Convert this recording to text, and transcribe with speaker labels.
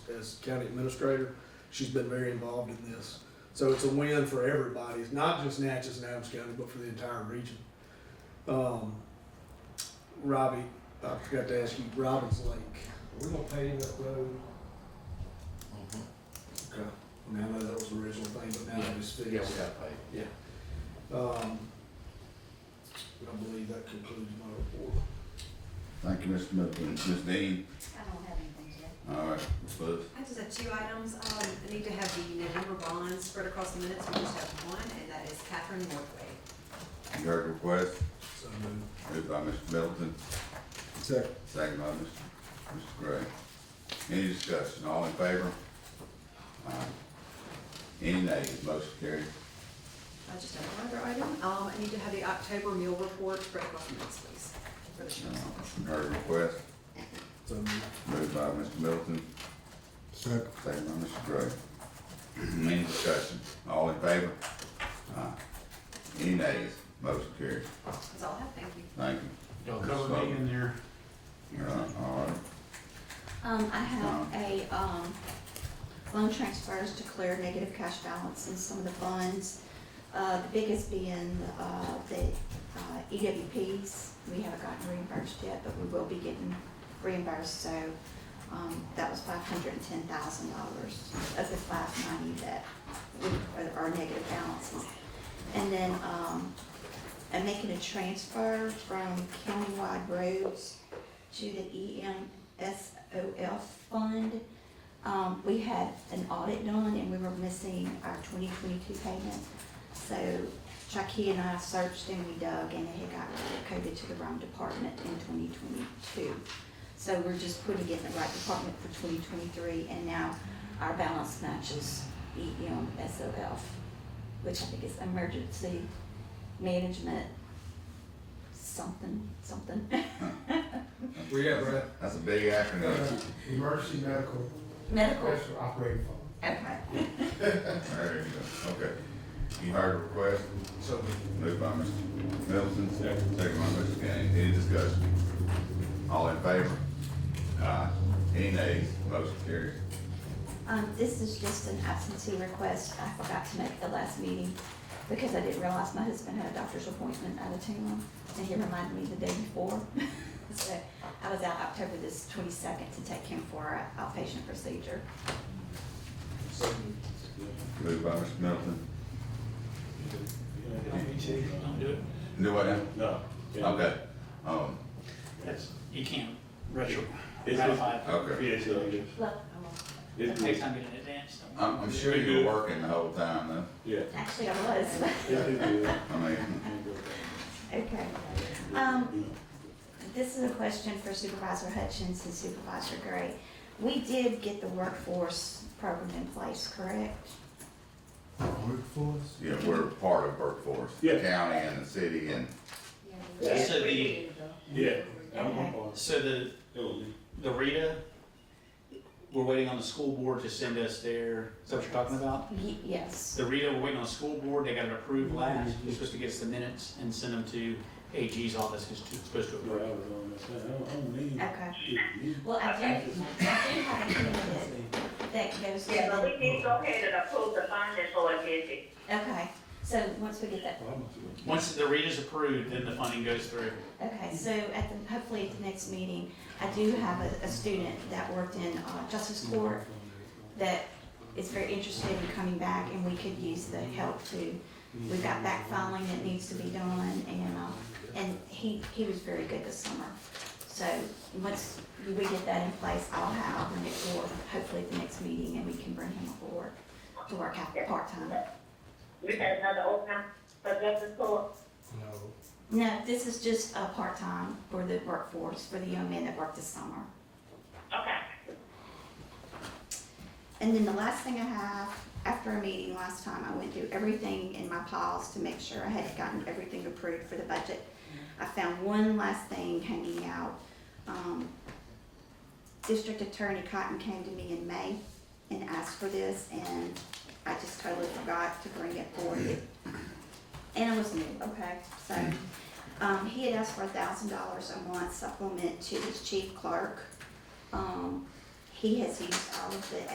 Speaker 1: as county administrator. She's been very involved in this. So it's a win for everybody. It's not just Natchez and Adams County, but for the entire region. Um, Robbie, I forgot to ask you, Robbins Lake. We're gonna pave that road. Okay. I mean, I know that was the original thing, but now it's
Speaker 2: Yeah, we got
Speaker 1: fixed.
Speaker 2: paid.
Speaker 1: Um, I believe that concludes my report.
Speaker 3: Thank you, Mr. Middleton. Ms. Dean?
Speaker 4: I don't have anything yet.
Speaker 3: All right, Ms. Lewis.
Speaker 5: I just have two items. Um, I need to have the November bonds spread across the minutes. We just have one, and that is Catherine Northway.
Speaker 3: You heard the request,
Speaker 1: So moved.
Speaker 3: moved by Mr. Middleton,
Speaker 1: Second.
Speaker 3: second by Mr. Mr. Gray. Any discussion, all in favor? All right. Any nays, motion carried.
Speaker 5: I just have one other item. Um, I need to have the October meal report spread across the minutes, please. For the sheriff's office.
Speaker 3: You Uh, heard the request,
Speaker 1: So moved.
Speaker 3: moved by Mr. Middleton,
Speaker 6: Second.
Speaker 3: second by Mr. Gray. Any discussion, all in favor? Aye. Any nays, motion carried.
Speaker 5: That's all I have. Thank you.
Speaker 3: Thank
Speaker 2: Y'all cover me in there.
Speaker 3: you. All right, All right,
Speaker 4: Um, I have a, um, loan transfers declared negative cash balance in some of the funds. Uh, the biggest being, uh, the, uh, EWPs. We haven't gotten reimbursed yet, but we will be getting reimbursed, so, um, that was five hundred and ten thousand dollars of the five ninety that we, are our negative balances. And then, um, I'm making a transfer from countywide roads to the E EMSOF fund. Um, we had an audit done and we were missing our twenty twenty-two payment. So Chucky and I searched and we dug and it had got coded to the wrong department in twenty twenty-two. So we're just putting it in the right department for twenty twenty-three and now our balance matches E EMSOF, which I think is emergency management something, something.
Speaker 1: Where you at, Brad?
Speaker 3: that's a big acronym.
Speaker 6: Emergency medical
Speaker 4: Medical,
Speaker 6: special operating fund.
Speaker 4: okay.
Speaker 3: There you go, okay. You heard the request,
Speaker 1: So moved.
Speaker 3: moved by Mr. Middleton, second by Mr. Gaines, any discussion? All in favor? Aye. Any nays? Motion carries.
Speaker 4: Um, this is just an absentee request. I forgot to make it the last meeting because I didn't realize my husband had a doctor's appointment out of town and he reminded me the day before. So I was out October this twenty-second to take him for our outpatient procedure.
Speaker 1: So moved.
Speaker 3: Moved by Mr. Middleton.
Speaker 2: Don't do it.
Speaker 3: Do what now?
Speaker 7: No.
Speaker 3: Okay, um,
Speaker 7: Yes.
Speaker 2: You can't retro,
Speaker 7: It's-
Speaker 2: ratify it.
Speaker 3: okay.
Speaker 7: Yes, it is.
Speaker 4: Look,
Speaker 2: It
Speaker 7: It's
Speaker 2: takes
Speaker 7: good.
Speaker 2: time to get in advance, so.
Speaker 3: I'm, I'm sure you were working the whole time though.
Speaker 7: Yeah.
Speaker 4: actually I was,
Speaker 7: It's good.
Speaker 3: I mean,
Speaker 4: okay. Um, This is a question for Supervisor Hutchins and Supervisor Gray. We did get the workforce program in place, correct?
Speaker 6: Workforce?
Speaker 3: yeah, we're part of workforce, the
Speaker 7: Yeah.
Speaker 3: county and the city and,
Speaker 2: Yeah. So the-
Speaker 7: Yeah. I'm on board.
Speaker 2: So the,
Speaker 7: Oh,
Speaker 2: the Rita, we're waiting on the school board to send us their, is that what you're talking about?
Speaker 4: Ye- Yes.
Speaker 2: The Rita, we're waiting on the school board, they got it approved last, you're supposed to get us the minutes and send them to AG's office, who's to- supposed to
Speaker 7: yeah, I
Speaker 2: approve.
Speaker 7: was on this. I don't, I don't need.
Speaker 4: Okay.
Speaker 7: it.
Speaker 4: Well, I do, I do have a candidate that goes
Speaker 8: Yeah, but
Speaker 4: to,
Speaker 8: we need to go ahead and approve the funding for logistics.
Speaker 4: okay, so once we get that,
Speaker 7: Well, I'm not sure.
Speaker 2: Once the Rita's approved, then the funding goes through.
Speaker 4: okay, so at the, hopefully at the next meeting, I do have a, a student that worked in, uh, justice court that is very interested in coming back and we could use the help too. We've got back filing that needs to be done and, uh, and he, he was very good this summer. So once we get that in place, I'll have, I'll bring it forward, hopefully at the next meeting and we can bring him aboard to work out part-time.
Speaker 8: We had another opening for justice court.
Speaker 1: No.
Speaker 4: No, this is just a part-time for the workforce, for the young men that work this summer.
Speaker 8: Okay.
Speaker 4: And then the last thing I have, after a meeting last time, I went through everything in my piles to make sure I had gotten everything approved for the budget. I found one last thing hanging out. Um, District Attorney Cotton came to me in May and asked for this, and I just totally forgot to bring it forward. And it was new, okay, so, um, he had asked for a thousand dollars a month supplement to his chief clerk. Um, he- He has used all of the